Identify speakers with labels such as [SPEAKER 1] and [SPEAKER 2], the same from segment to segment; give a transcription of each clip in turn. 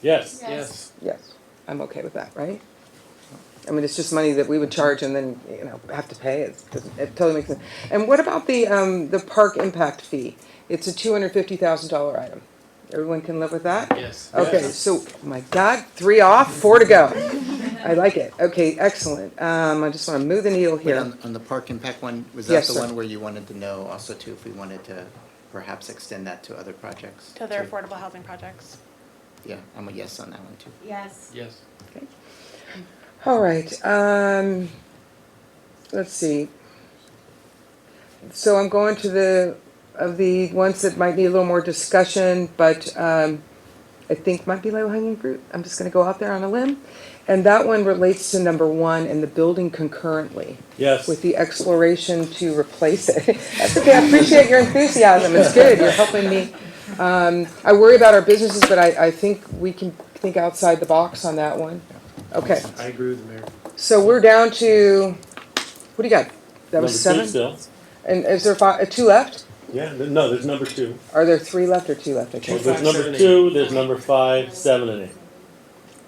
[SPEAKER 1] Yes.
[SPEAKER 2] Yes.
[SPEAKER 3] Yeah, I'm okay with that, right? I mean, it's just money that we would charge and then, you know, have to pay, it, it totally makes sense. And what about the, um, the park impact fee? It's a two hundred fifty thousand dollar item, everyone can live with that?
[SPEAKER 2] Yes.
[SPEAKER 3] Okay,
[SPEAKER 1] Yes.
[SPEAKER 3] so, my God, three off, four to go, I like it, okay, excellent, um, I just wanna move the needle
[SPEAKER 4] Wait,
[SPEAKER 3] here.
[SPEAKER 4] on, on the park impact one, was
[SPEAKER 3] Yes,
[SPEAKER 4] that the
[SPEAKER 3] sir.
[SPEAKER 4] one where you wanted to know also too, if we wanted to perhaps extend that to other projects?
[SPEAKER 5] to their
[SPEAKER 4] too?
[SPEAKER 5] affordable housing projects.
[SPEAKER 4] Yeah, I'm a yes on that one too.
[SPEAKER 6] Yes.
[SPEAKER 2] Yes.
[SPEAKER 3] All right, um, let's see. So I'm going to the, of the ones that might need a little more discussion, but, um, I think might be low hanging fruit. I'm just gonna go out there on a limb. And that one relates to number one and the building concurrently
[SPEAKER 1] Yes.
[SPEAKER 3] with the exploration to replace it. That's okay, I appreciate your enthusiasm, it's good, you're helping me. Um, I worry about our businesses, but I, I think we can think outside the box on that one. Okay.
[SPEAKER 2] I agree with the mayor.
[SPEAKER 3] So we're down to, what do you got? That was
[SPEAKER 1] number two
[SPEAKER 3] seven?
[SPEAKER 1] still.
[SPEAKER 3] And is there five, uh, two left?
[SPEAKER 1] Yeah. th- No, there's number two.
[SPEAKER 3] Are there three left or two left? I
[SPEAKER 1] Well,
[SPEAKER 3] can't.
[SPEAKER 1] there's
[SPEAKER 2] five,
[SPEAKER 1] number
[SPEAKER 2] seven,
[SPEAKER 1] two. There's number five, seven, and eight.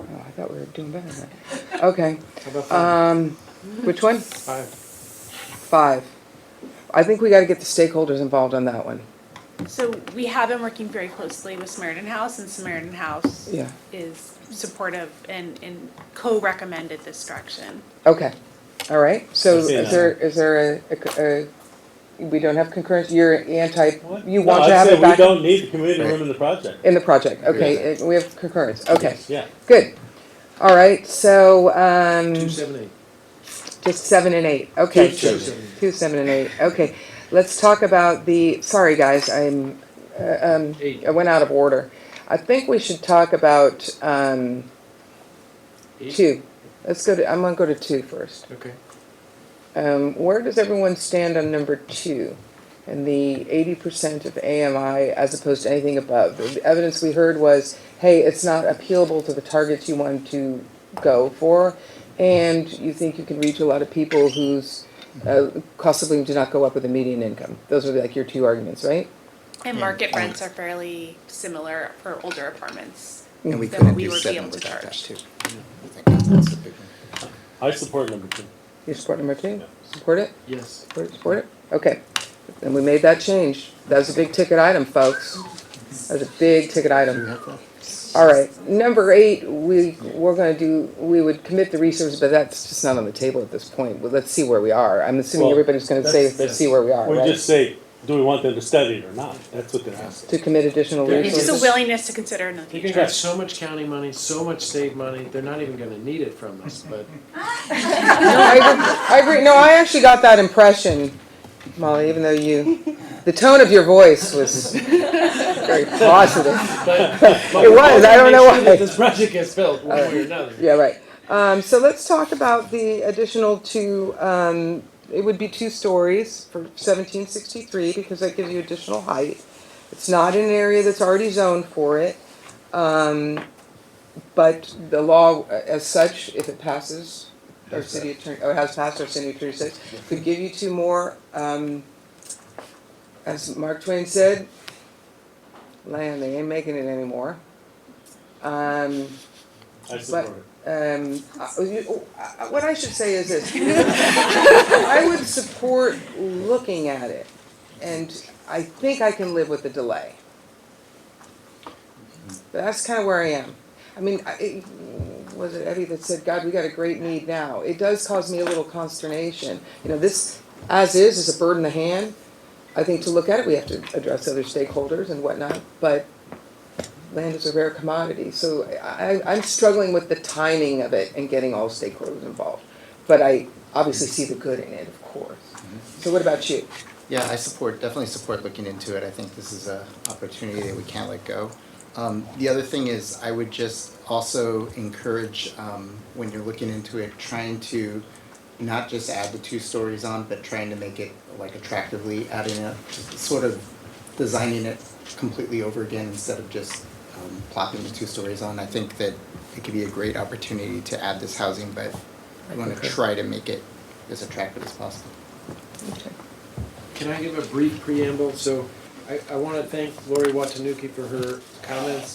[SPEAKER 3] Oh, I thought we were doing better than that. Okay, Um,
[SPEAKER 2] How about five?
[SPEAKER 3] which one?
[SPEAKER 2] Five.
[SPEAKER 3] Five. I think we gotta get the stakeholders involved on that one.
[SPEAKER 5] So we have been working very closely with Samaritan House, and Samaritan House
[SPEAKER 3] Yeah.
[SPEAKER 5] is supportive and, and co-recommended this direction.
[SPEAKER 3] Okay, all right. So
[SPEAKER 1] Okay,
[SPEAKER 3] is there, is there a- a, a, we don't have concurrence, you're anti,
[SPEAKER 1] What?
[SPEAKER 3] you
[SPEAKER 1] No,
[SPEAKER 3] want
[SPEAKER 1] I'd
[SPEAKER 3] to have
[SPEAKER 1] say
[SPEAKER 3] it back
[SPEAKER 1] We don't need the community room
[SPEAKER 4] Right.
[SPEAKER 1] in the project.
[SPEAKER 3] in the project?
[SPEAKER 4] Agree with
[SPEAKER 3] Okay, uh, we have concurrence, okay,
[SPEAKER 1] Yeah.
[SPEAKER 3] good. All right, so, um.
[SPEAKER 2] Two, seven, eight.
[SPEAKER 3] Just seven and eight, okay.
[SPEAKER 1] Two, seven,
[SPEAKER 2] eight.
[SPEAKER 3] Two, seven, and eight, okay. Let's talk about the, sorry, guys, I'm, uh, um,
[SPEAKER 2] Eight.
[SPEAKER 3] I went out of order. I think we should talk about, um,
[SPEAKER 2] Eight?
[SPEAKER 3] two. Let's go to, I'm gonna go to two first.
[SPEAKER 2] Okay.
[SPEAKER 3] Um, where does everyone stand on number two? And the eighty percent of AMI as opposed to anything above? The evidence we heard was, hey, it's not appealable to the targets you want to go for, and you think you can reach a lot of people whose, uh, cost of living do not go up with the median income. Those are like your two arguments, right?
[SPEAKER 5] And
[SPEAKER 4] Yeah.
[SPEAKER 5] market rents are fairly similar for older apartments.
[SPEAKER 3] Mm.
[SPEAKER 4] And we
[SPEAKER 5] Then
[SPEAKER 4] couldn't
[SPEAKER 5] we
[SPEAKER 4] do
[SPEAKER 5] would be
[SPEAKER 4] seven
[SPEAKER 5] able to
[SPEAKER 4] without that
[SPEAKER 5] charge.
[SPEAKER 4] too. I think that's a big one.
[SPEAKER 1] I support number two.
[SPEAKER 3] You support number two? Support it?
[SPEAKER 2] Yes.
[SPEAKER 3] Support it, support it? Okay. And we made that change. That was a big ticket item, folks. That was a big ticket item.
[SPEAKER 4] Do you have that?
[SPEAKER 3] All right, number eight, we, we're gonna do, we would commit the resources, but that's just not on the table at this point. Well, let's see where we are. I'm assuming
[SPEAKER 1] Well,
[SPEAKER 3] everybody's gonna say,
[SPEAKER 1] that's-
[SPEAKER 3] let's see where we are,
[SPEAKER 1] We just
[SPEAKER 3] right?
[SPEAKER 1] say, do we want them to study it or not? That's what they're
[SPEAKER 3] To
[SPEAKER 1] asking.
[SPEAKER 3] commit additional
[SPEAKER 2] Yeah.
[SPEAKER 5] It's just a
[SPEAKER 3] resources.
[SPEAKER 5] willingness to consider in the
[SPEAKER 2] They
[SPEAKER 5] future.
[SPEAKER 2] got so much county money, so much state money, they're not even gonna need it from us, but
[SPEAKER 3] No, I agree- I agree, no, I actually got that impression, Molly, even though you, the tone of your voice was very positive.
[SPEAKER 2] but. but
[SPEAKER 3] It
[SPEAKER 2] we
[SPEAKER 3] was,
[SPEAKER 2] want to
[SPEAKER 3] I don't
[SPEAKER 2] make
[SPEAKER 3] know
[SPEAKER 2] sure
[SPEAKER 3] why.
[SPEAKER 2] that This project gets built one way or another.
[SPEAKER 3] Yeah, right. Um, so let's talk about the additional two, um, it would be two stories for seventeen sixty-three because that gives you additional height. It's not in an area that's already zoned for it. Um, but the law uh, as such, if it passes, our city attorney, or has passed our city attorney says, could give you two more, um, as Mark Twain said, land, they ain't making it anymore. Um,
[SPEAKER 1] I support it.
[SPEAKER 3] um, I- you- I- what I should say is this. I would support looking at it, and I think I can live with the delay. But that's kind of where I am. I mean, I, it, was it Eddie that said, God, we got a great need now? It does cause me a little consternation. You know, this, as is, is a bird in the hand. I think to look at it, we have to address other stakeholders and whatnot, but land is a rare commodity, so I, I- I'm struggling with the timing of it and getting all stakeholders involved. But I obviously see the good in it, of course. So what about you?
[SPEAKER 4] Yeah, I support, definitely support looking into it. I think this is a opportunity that we can't let go. Um, the other thing is, I would just also encourage, um, when you're looking into it, trying to not just add the two stories on, but trying to make it like attractively adding it, just sort of designing it completely over again instead of just, um, plopping the two stories on. I think that it could be a great opportunity to add this housing, but I wanna try to make it as attractive as possible.
[SPEAKER 2] Can I give a brief preamble? So I, I want to thank Lori Watanuki for her comments